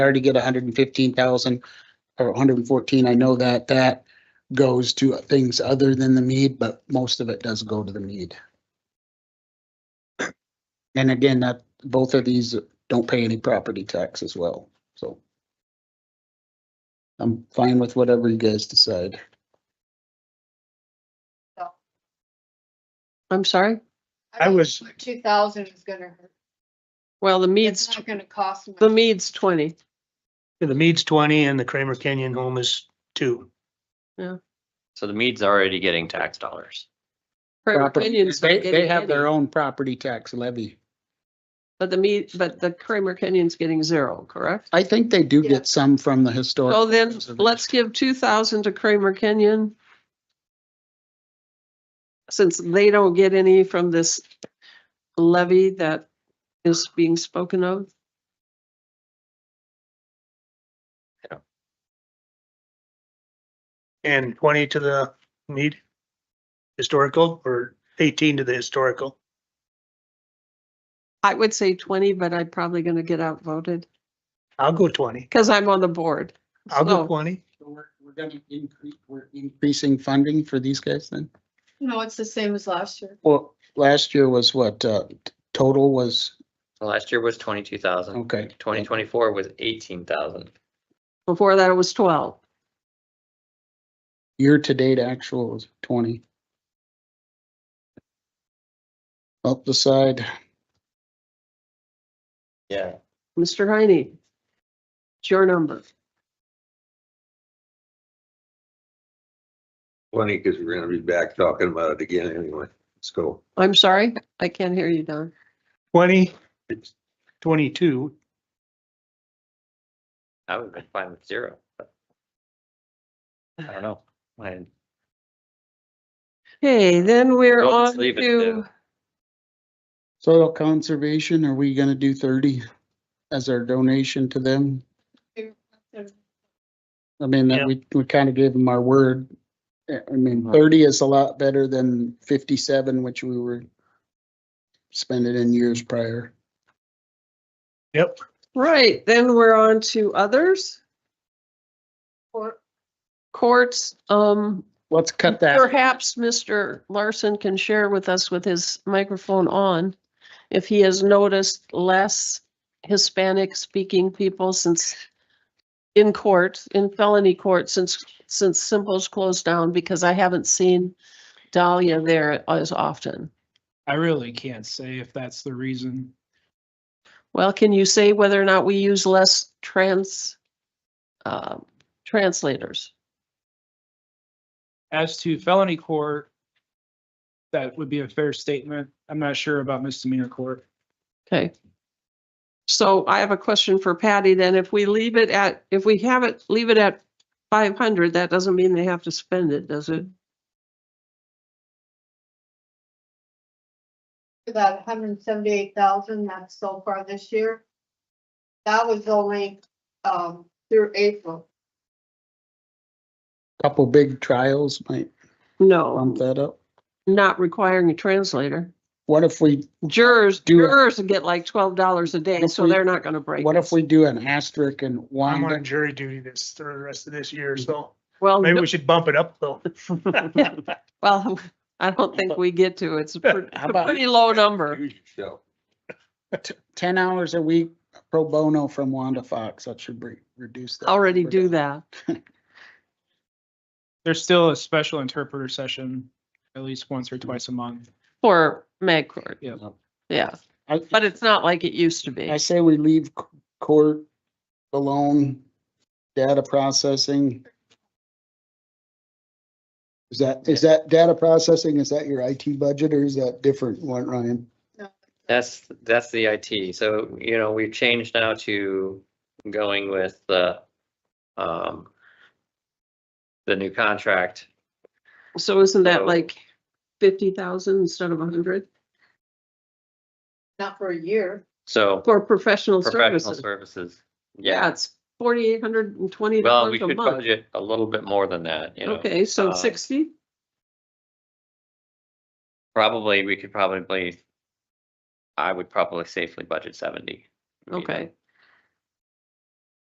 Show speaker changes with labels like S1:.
S1: already get hundred and fifteen thousand or hundred and fourteen. I know that that goes to things other than the mead, but most of it does go to the mead. And again, that, both of these don't pay any property tax as well, so. I'm fine with whatever you guys decide.
S2: I'm sorry?
S3: I was-
S4: Two thousand is gonna, hurt.
S2: Well, the
S4: it's
S2: Mead's,
S4: not gonna cost.
S2: the
S4: much.
S2: Mead's twenty.
S3: The Mead's twenty and the Kramer Canyon home is two.
S5: So the Mead's already getting tax dollars.
S2: Kramer
S1: Property-
S2: Kenyon's not
S1: They, they
S2: getting
S1: have their
S2: any,
S1: own property tax levy.
S2: But the Mead, but the Kramer Kenyon's getting zero, correct?
S1: I think they do
S4: Yeah.
S1: get some from the historic.
S2: So then
S1: preservation.
S2: let's give two thousand to Kramer Kenyon. Since they don't get any from this levy that is being spoken of.
S3: And twenty to the Mead historical or eighteen to the historical.
S2: I would say twenty, but I'm probably gonna get outvoted
S3: I'll go twenty.
S2: because I'm on the board.
S3: I'll go
S2: So-
S3: twenty.
S1: So We're, we're gonna increase, we're increasing funding for these guys then?
S4: No, it's the same as last year.
S1: Well, last year was what, uh, t- total was,
S5: So Last year was twenty-two
S2: Oh.
S5: thousand.
S1: okay.
S5: Twenty twenty-four was eighteen thousand.
S2: Before that, it was twelve.
S1: Year-to-date actual was twenty. Up the side,
S5: Yeah.
S2: Mr. Heine. It's your number.
S6: Funny, because we're gonna be back talking about it again anyway. Let's go.
S2: I'm sorry, I can't hear you, Don.
S3: Twenty. Twenty-two.
S5: I would have been fine with zero. but I don't know. I-
S2: Okay, then we're
S5: Well, let's
S2: on
S5: leave it
S2: to,
S1: soil conservation, are we gonna do thirty as our donation to them? I mean, that
S3: Yeah.
S1: we, we kind of gave them our word. Uh, I mean,
S5: Mhm.
S1: thirty is a lot better than fifty-seven, which we were spending in years prior.
S3: Yep.
S2: right, then we're on to others,
S4: Or
S2: courts. Um,
S1: Let's cut that.
S2: perhaps Mr. Larson can share with us with his microphone on if he has noticed less Hispanic speaking people since in court, in felony court, since, since Simple's closed down, because I haven't seen Dahlia there as often.
S7: I really can't say if that's the reason.
S2: Well, can you say whether or not we use less trans, um, translators?
S7: As to felony court, that would be a fair statement. I'm not sure about misdemeanor court.
S2: Okay. So I have a question for Patty then. If we leave it at, if we have it, leave it at five hundred, that doesn't mean they have to spend it, does it?
S4: for that hundred and seventy-eight thousand, that's so far this year. That was only, um, through April.
S1: Couple big trials might bump
S2: No,
S1: that up.
S2: not requiring a translator.
S1: What if we,
S2: Jurors,
S1: Do it.
S2: jurors get like twelve dollars a day,
S1: What if
S2: so
S1: we-
S2: they're not gonna break.
S1: what
S2: it.
S1: if we do an asterisk and
S3: I'm on
S1: Wanda?
S3: jury duty this, for the rest of this year, so
S2: Well,
S3: maybe
S2: no-
S3: we should bump it up though.
S2: well, I don't think we get to. It's a pre-
S1: How
S2: a
S1: about-
S2: pretty low number.
S6: Use yourself.
S1: t- Ten hours a week pro bono from Wanda Fox, that should re- reduce that.
S2: Already
S1: We're
S2: do
S1: done.
S2: that.
S7: There's still a special interpreter session at least once or twice a month.
S2: For mag court.
S7: Yeah.
S2: Yeah,
S1: I,
S2: but it's not like it used to be.
S1: I say we leave c- court alone, data processing. Is that, is that data processing, is that your IT budget or is that different one, Ryan?
S5: That's, that's the IT. So, you know, we've changed now to going with the, um, the new contract.
S2: So isn't that
S5: So-
S2: like fifty thousand instead of a hundred
S4: Not for a year.
S5: So
S2: for professional
S5: professional
S2: services?
S5: services.
S2: Yeah,
S5: Yeah.
S2: it's forty-eight hundred and twenty
S5: Well, we
S2: dollars a
S5: could
S2: month.
S5: budget a little bit more than that, you know.
S2: Okay, so
S5: uh,
S2: sixty?
S5: Probably, we could probably, I would probably safely budget seventy. you know.
S2: Okay.